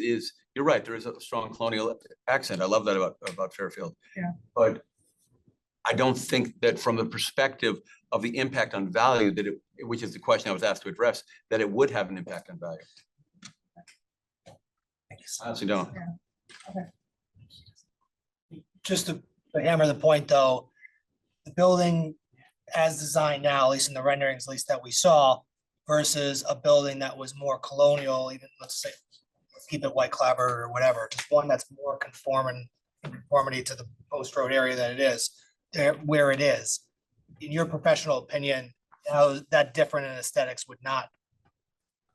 is, you're right, there is a strong colonial accent. I love that about, about Fairfield. Yeah. But I don't think that from the perspective of the impact on value that it, which is the question I was asked to address, that it would have an impact on value. I honestly don't. just to hammer the point, though, the building as designed now, at least in the renderings, at least that we saw, versus a building that was more colonial, even, let's say, let's keep it white clapper or whatever, just one that's more conforming, in conformity to the post road area that it is, there, where it is. In your professional opinion, how that different in aesthetics would not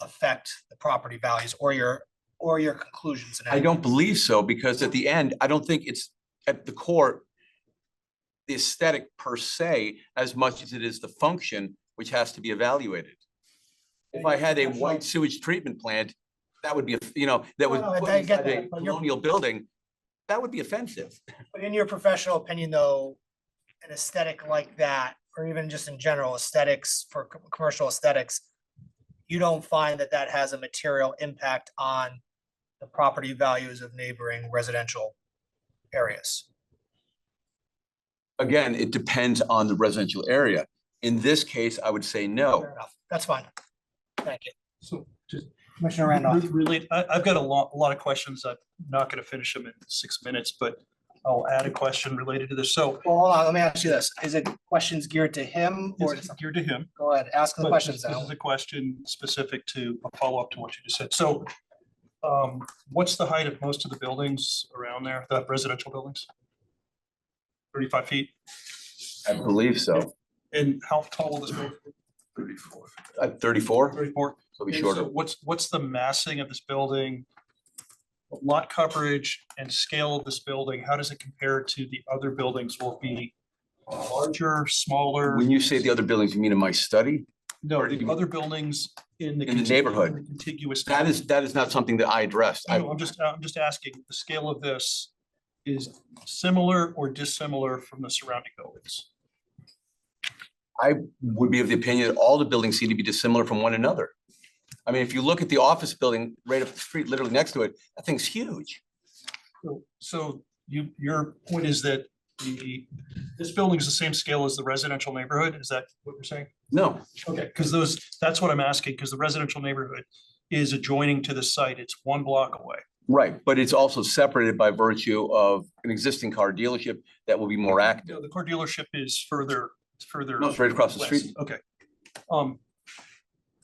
affect the property values or your, or your conclusions? in I any- don't believe so, because at the end, I don't think it's at the core. The aesthetic per se, as much as it is the function, which has to be evaluated. If I had a white sewage treatment plant, that would be, a- you know, that was No, no, I put get inside a that, but you're- colonial building, that would be offensive. But in your professional opinion, though, an aesthetic like that, or even just in general aesthetics for co- commercial aesthetics, you don't find that that has a material impact on the property values of neighboring residential areas? Again, it depends on the residential area. In this case, I would say no. Fair enough. That's fine. Thank you. So just. Commissioner Randolph. Really, I, I've got a lot, a lot of questions. I'm not gonna finish them in six minutes, but I'll add a question related to this. So Well, hold on, let me ask you this. Is it questions geared to him or, to it's some- geared to him. go ahead, ask the but questions. This Al. this is a question specific to a follow-up to what you just said. So um, what's the height of most of the buildings around there, the residential buildings? Thirty-five feet? I believe so. And how tall will this building? Thirty-four. At thirty-four, Thirty-four? it'll be And so shorter. What's, what's the massing of this building? Lot coverage and scale of this building, how does it compare to the other buildings? Will it be larger, smaller? When you say the other buildings, you mean in my study? No, the other buildings in the. In the contigu- neighborhood. the Contiguous. That is, that is not something that I addressed. I- No, I'm just, I'm just asking, the scale of this is similar or dissimilar from the surrounding buildings? would be of the opinion that all the buildings seem to be dissimilar from one another. I mean, if you look at the office building right up the street, literally next to it, that thing's huge. So- So you, your point is that the, this building is the same scale as the residential neighborhood? Is that what you're saying? No, Okay, because those, that's what I'm asking, because the residential neighborhood is adjoining to the site. It's one block away. right, but it's also separated by virtue of an existing car dealership that will be more active. No, the car dealership is further, it's further. No, it's right across the west. street. Okay. Um,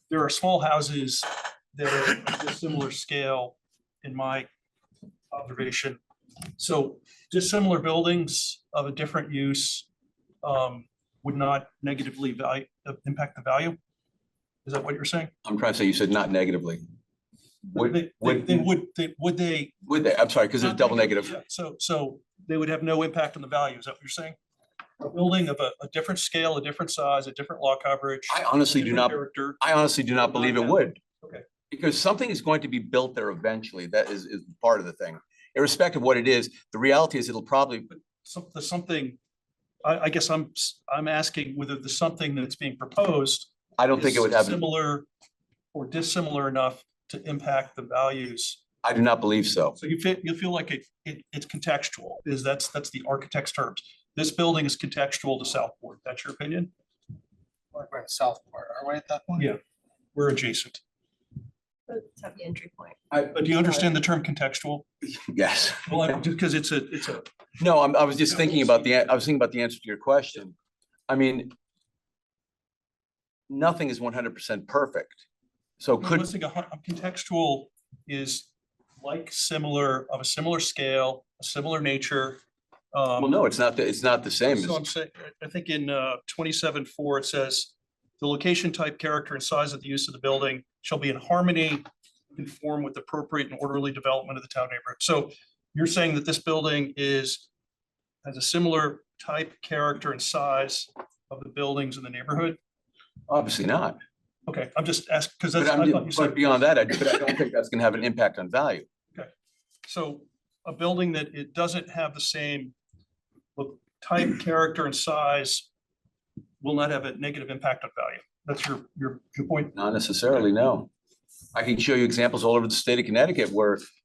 there are small houses that are of similar scale in my observation. So dissimilar buildings of a different use um, would not negatively value, impact the value? Is that what you're saying? I'm trying to say, you said not negatively. Would, They- they- would, they would, they- would they would they, I'm sorry, because it's Not double negative. Yeah, So, so they would have no impact on the value, is that what you're saying? A building of a, a different scale, a different size, a different law coverage. I honestly do different not, Character, I honestly do not believe it would. Okay. Because something is going to be built there eventually. That is, is part of the thing. Irrespective of what it is, the reality is it'll probably something, something, I, I guess I'm, s- I'm asking whether the something that's being proposed. I don't think it is would have, an- Similar or dissimilar enough to impact the values. I do not believe so. So you feel, you feel like it, it, it's contextual, is that's, that's the architect's terms. This building is contextual to Southport, that's your opinion? We're in Southport, are we at that point? Yeah. We're adjacent, Let's have the entry point. but do you understand the term contextual? Yes. Well, I- just because it's a, it's a, No, I'm, I was Yeah, just thinking we'll about see. the, an- I was thinking about the answer to your question. I mean, nothing is one hundred percent perfect. So I'm could, listing a hun- a contextual is like similar, of a similar scale, a similar nature. um, well, no, it's not, the it's not the same. So I'm as- saying, I think in uh, twenty-seven four, it says, the location, type, character, and size of the use of the building shall be in harmony, conform with appropriate and orderly development of the town neighborhood. So you're saying that this building is, has a similar type, character, and size of the buildings in the neighborhood? Obviously not. Okay, I'm just asking, because But that's. I thought I'm, you said- but beyond that, I, but I don't think that's gonna have an impact on value. So a building that it doesn't have the same look, type, character and size will not have a negative impact on value. That's your, your, your point. Not necessarily, no. I can show you examples all over the state of Connecticut where